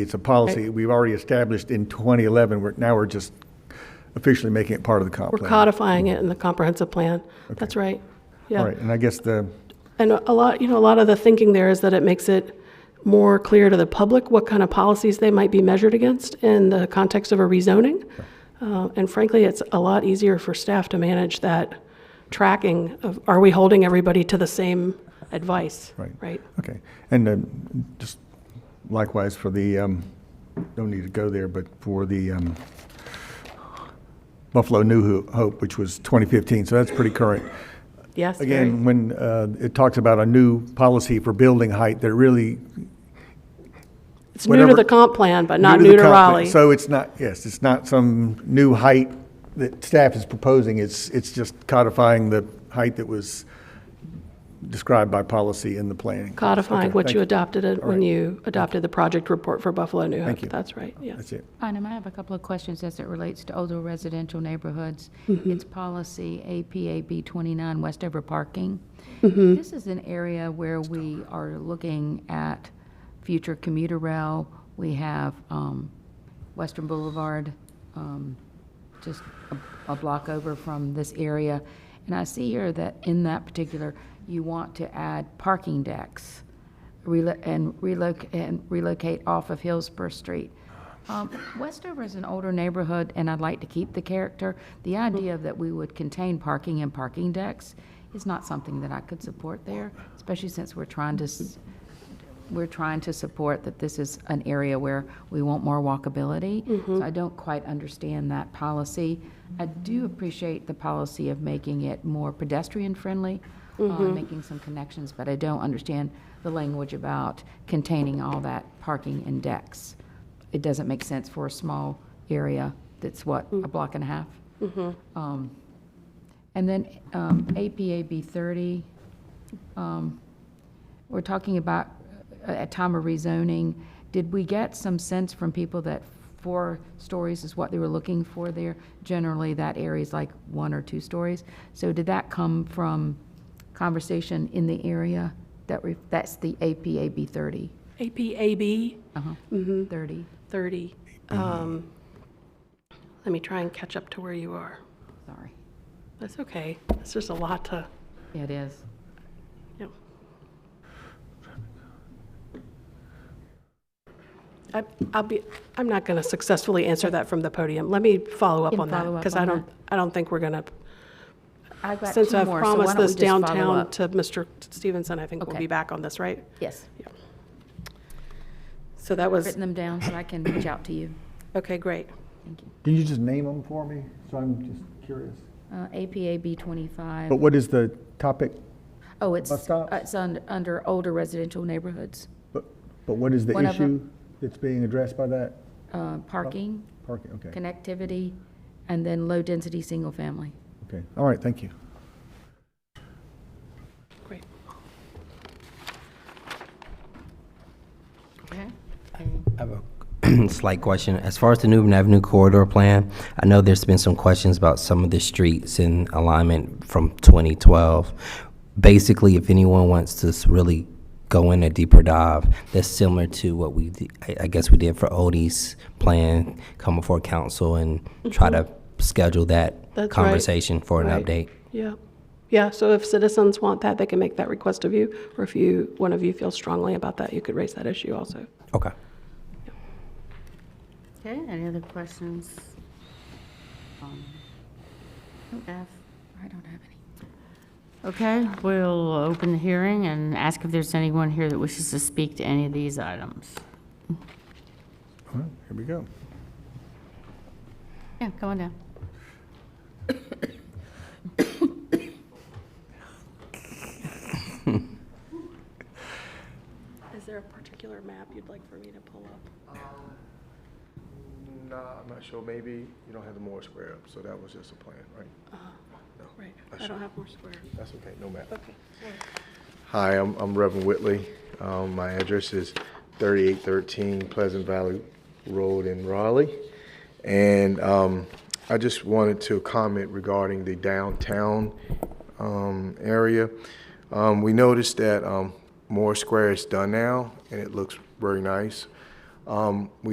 It's a policy we've already established in 2011. We're, now we're just officially making it part of the comp We're plan. codifying it in the comprehensive plan. That's right. All Yeah. right, and I guess the, And a lot, you know, a lot of the thinking there is that it makes it more clear to the public what kind of policies they might be measured against in the context of a rezoning. Uh, And frankly, it's a lot easier for staff to manage that tracking of, are we holding everybody to the same advice? Right. Right? okay. And um, just likewise for the, um, don't need to go there, but for the um, Buffalo New Ho- Hope, which was 2015, so that's pretty current. Yes, very. Again, when uh, it talks about a new policy for building height, that really. It's new to whatever- the comp plan, but not the new to comp- Raleigh. So it's not, yes, it's not some new height that staff is proposing. It's, it's just codifying the height that was described by policy in the planning. Codifying Okay, what thank you adopted it when right. you adopted the project report for Buffalo New Hope. Thank you. That's right, yeah. That's it. Bynum, I have a couple of questions as it relates to older residential neighborhoods. It's policy APAB 29, Westover parking. This is an area where we are looking at future commuter rail. We have um, Western Boulevard, um, just a a block over from this area. And I see here that in that particular, you want to add parking decks relo- and relocate, and relocate off of Hillsborough Street. Um, Westover is an older neighborhood, and I'd like to keep the character. The idea that we would contain parking and parking decks is not something that I could support there, especially since we're trying to, s- we're trying to support that this is an area where we want more walkability. So I don't quite understand that policy. I do appreciate the policy of making it more pedestrian-friendly, uh, making some connections, but I don't understand the language about containing all that parking and decks. It doesn't make sense for a small area that's what, a block and a half? Um, And then um, APAB 30, we're talking about uh, at time of rezoning, did we get some sense from people that four stories is what they were looking for there? Generally, that area is like one or two stories. So did that come from conversation in the area that, re- that's the APAB 30? APAB Uh-huh, Mm-hmm. 30, 30. Mm-hmm. Um, Let me try and catch up to where you are. sorry. That's okay. It's just a lot to, Yeah, It is. you know. I- I'll be, I'm not going to successfully answer that from the podium. Let me follow up Can on that. follow up Because on I don't, that. I don't think we're going to, I've got since two I've more, so why promised don't we this just follow downtown up? to Mr. Stevenson, I think we'll Okay. be back on this, right? Yes, So that was, written them down so I can reach out to you. okay, great. Thank you. Can you just name them for me? So I'm just curious. Uh, APAB But 25, what is the topic? oh, it's, bus stops? it's un- under older residential neighborhoods. But, but what is the One of issue them. that's being addressed by that uh, parking, parking? Okay, connectivity, and then low-density, single-family. okay. All right, thank you. Great. Okay. I have a slight question. As far as the Newbern Avenue corridor plan, I know there's been some questions about some of the streets in alignment from 2012. Basically, if anyone wants to s- really go in a deeper dive, that's similar to what we, d- I I guess we did for Odie's plan, come before council and try to schedule that Mm-hmm. That's right. conversation for an Right. update. Yeah, yeah, so if citizens want that, they can make that request of you, or if you, one of you feels strongly about that, you could raise that issue also. Okay. Okay, any other questions? Um, F. I don't have any. Okay, we'll open the hearing and ask if there's anyone here that wishes to speak to any of these items. All right, here we go. Yeah, come on down. Is there a particular map you'd like for me to pull up? Nah, I'm not sure. Maybe you don't have the Moore Square up, so that was just a plan, right? No, Right, not I sure. don't have more squares. That's okay, no matter. Okay. Hi, I'm I'm Reverend Whitley. Um, My address is 3813 Pleasant Valley Road in Raleigh. And um, I just wanted to comment regarding the downtown um, area. Um, We noticed that um, Moore Square is done now, and it looks very nice. Um, Um, We